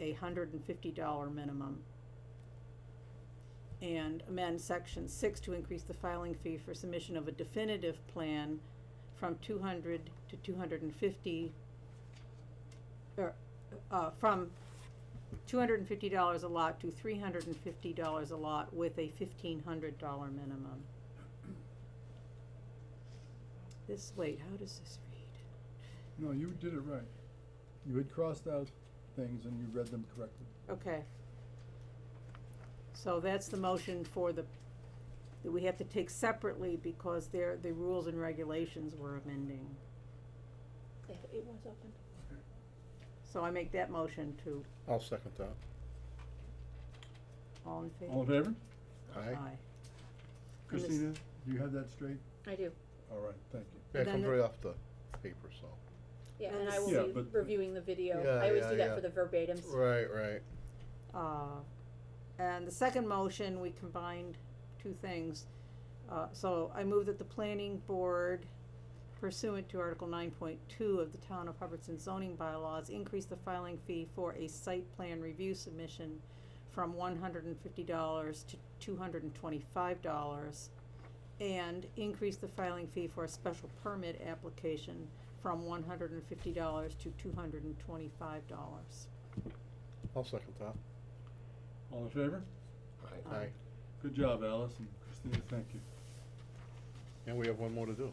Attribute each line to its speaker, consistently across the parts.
Speaker 1: a hundred and fifty dollar minimum. And amend section six to increase the filing fee for submission of a definitive plan from two hundred to two hundred and fifty, or, uh, from two hundred and fifty dollars a lot to three hundred and fifty dollars a lot with a fifteen hundred dollar minimum. This, wait, how does this read?
Speaker 2: No, you did it right. You had crossed out things and you read them correctly.
Speaker 1: Okay. So that's the motion for the, that we have to take separately because there, the rules and regulations were amending.
Speaker 3: Yeah, it was open.
Speaker 1: So I make that motion to,
Speaker 4: I'll second that.
Speaker 1: all in favor?
Speaker 2: All in favor?
Speaker 4: Aye.
Speaker 1: And this-
Speaker 2: Christina, do you have that straight?
Speaker 3: I do,
Speaker 2: All right, thank you.
Speaker 4: Yeah, it
Speaker 1: Then
Speaker 4: comes
Speaker 1: the-
Speaker 4: right off the paper, so.
Speaker 3: yeah,
Speaker 1: And
Speaker 3: and I
Speaker 1: it's-
Speaker 2: Yeah,
Speaker 3: will be
Speaker 2: but-
Speaker 3: reviewing the video,
Speaker 4: Yeah,
Speaker 3: I always
Speaker 4: yeah,
Speaker 3: do
Speaker 4: yeah.
Speaker 3: that for the verbatims.
Speaker 4: Right, right.
Speaker 1: Uh, and the second motion, we combined two things. Uh, so I move that the planning board pursuant to Article nine point two of the Town of Hubbardson zoning bylaws, increase the filing fee for a site plan review submission from one hundred and fifty dollars to two hundred and twenty-five dollars, and increase the filing fee for a special permit application from one hundred and fifty dollars to two hundred and twenty-five dollars.
Speaker 4: I'll second that.
Speaker 2: All in favor?
Speaker 1: Aye.
Speaker 4: Aye.
Speaker 2: Good job, Alice and Christina, thank you.
Speaker 4: And we have one more to do.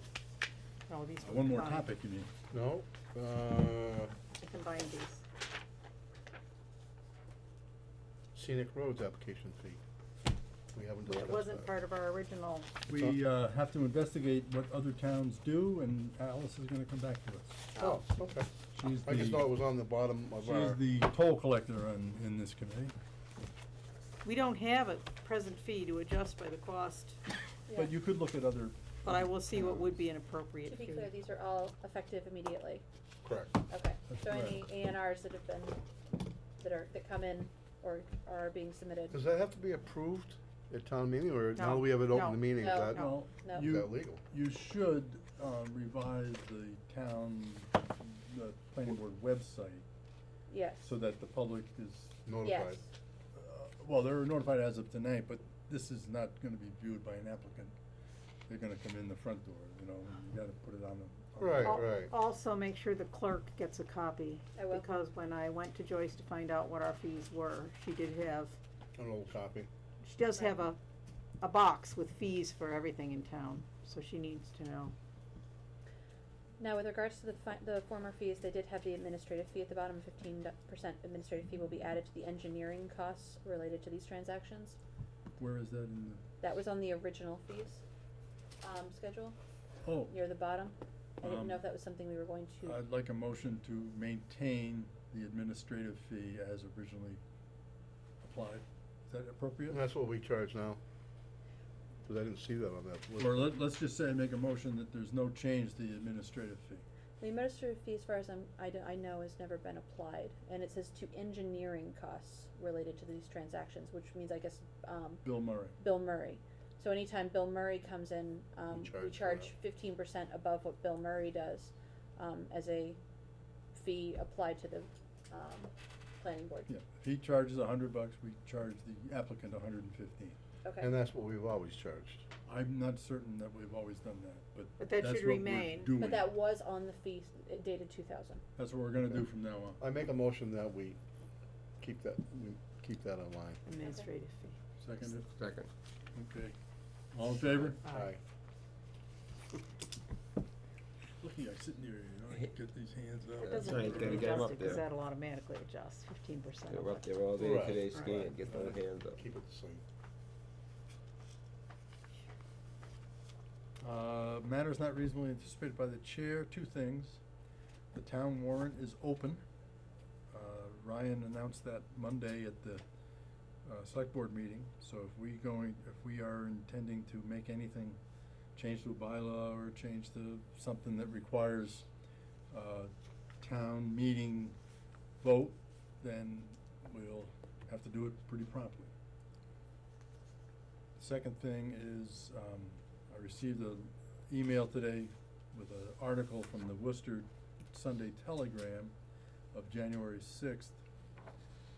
Speaker 1: Oh, these were
Speaker 2: Uh, One more
Speaker 1: combined.
Speaker 2: topic, you mean?
Speaker 4: No, uh,
Speaker 1: I combined these.
Speaker 4: scenic roads application fee. We haven't discussed
Speaker 1: It
Speaker 4: that.
Speaker 1: wasn't part of our original,
Speaker 2: We, uh, have to investigate what other towns do and Alice is gonna come back to us.
Speaker 4: Oh, okay.
Speaker 2: She's
Speaker 4: I just thought it
Speaker 2: the,
Speaker 4: was on the bottom of our.
Speaker 2: she's the toll collector on, in this committee.
Speaker 1: we don't have a present fee to adjust by the cost,
Speaker 2: But you could look at other,
Speaker 1: but
Speaker 3: Uh,
Speaker 1: I will see what would be an
Speaker 3: Yeah.
Speaker 1: appropriate
Speaker 3: To
Speaker 1: fee.
Speaker 3: be clear, these are all effective immediately,
Speaker 4: Correct.
Speaker 3: okay,
Speaker 2: That's
Speaker 3: so any
Speaker 2: correct.
Speaker 3: A and Rs that have been, that are, that come in or are being submitted,
Speaker 4: Does that have to be approved at town meeting, or now
Speaker 1: No,
Speaker 4: that we have it open
Speaker 1: no,
Speaker 4: to meeting, is
Speaker 3: no,
Speaker 4: that,
Speaker 2: well,
Speaker 3: no.
Speaker 4: is
Speaker 2: you,
Speaker 4: Uh, that legal?
Speaker 2: You should uh, revise the town, the planning board website,
Speaker 3: yes,
Speaker 2: so that the public is,
Speaker 3: yes,
Speaker 4: Notified.
Speaker 2: uh, well, they're notified as of tonight, but this is not gonna be viewed by an applicant. They're gonna come in the front door, you know, and you gotta put it on the. on the-
Speaker 4: Right,
Speaker 1: Al-
Speaker 4: right.
Speaker 1: Also, make sure the clerk gets a copy,
Speaker 3: I will.
Speaker 1: because when I went to Joyce to find out what our fees were, she did have,
Speaker 4: An old copy.
Speaker 1: she does have a, a box with fees for everything in town, so she needs to know.
Speaker 3: Now, with regards to the fi- the former fees, they did have the administrative fee at the bottom, fifteen percent administrative fee will be added to the engineering costs related to these transactions.
Speaker 2: Where is that in the,
Speaker 3: That was on the original fees, um, schedule,
Speaker 2: oh,
Speaker 3: near the bottom. I didn't know
Speaker 2: Um,
Speaker 3: if that was something we were going to,
Speaker 2: I'd like a motion to maintain the administrative fee as originally applied. Is that appropriate?
Speaker 4: And that's what we charge now. Cause I didn't see that on that list.
Speaker 2: Or let, let's just say, make a motion that there's no change to the administrative fee.
Speaker 3: the administrative fee, as far as I'm, I d- I know, has never been applied, and it says to engineering costs related to these transactions, which means, I guess, um,
Speaker 2: Bill Murray.
Speaker 3: Bill Murray. So anytime Bill Murray comes in, um, we
Speaker 4: charge for
Speaker 3: charge fifteen percent above what Bill Murray does, um, as a fee applied to the, um, planning board.
Speaker 2: Yeah, if he charges a hundred bucks, we charge the applicant a hundred and fifteen.
Speaker 3: Okay,
Speaker 4: And that's what we've always charged.
Speaker 2: I'm not certain that we've always done that, but
Speaker 1: But that
Speaker 2: that's what
Speaker 1: should
Speaker 2: we're
Speaker 1: remain. But
Speaker 2: doing.
Speaker 3: but that was on the fee s- it dated two thousand.
Speaker 2: That's what we're gonna do from now on.
Speaker 4: I make a motion that we keep that, we keep that in line.
Speaker 1: Administrative fee.
Speaker 2: Second,
Speaker 4: Second.
Speaker 2: okay. All in favor?
Speaker 4: Aye.
Speaker 2: Lucky I sit near you, you know, I can get these hands up.
Speaker 1: It
Speaker 5: That's
Speaker 1: doesn't
Speaker 5: right,
Speaker 1: need to
Speaker 5: gotta
Speaker 1: be
Speaker 5: get 'em up
Speaker 1: adjusted, because
Speaker 5: there.
Speaker 1: that'll automatically adjust fifteen percent.
Speaker 5: They're up there all day
Speaker 4: Right.
Speaker 5: today
Speaker 1: Right.
Speaker 5: skiing, get those hands up.
Speaker 4: Keep it the same.
Speaker 2: Uh, matters not reasonably anticipated by the chair, two things. The town warrant is open. Uh, Ryan announced that Monday at the, uh, select board meeting, so if we going, if we are intending to make anything, change to a bylaw or change to something that requires, uh, town meeting vote, then we'll have to do it pretty promptly. Second thing is, um, I received an email today with an article from the Worcester Sunday Telegram of January sixth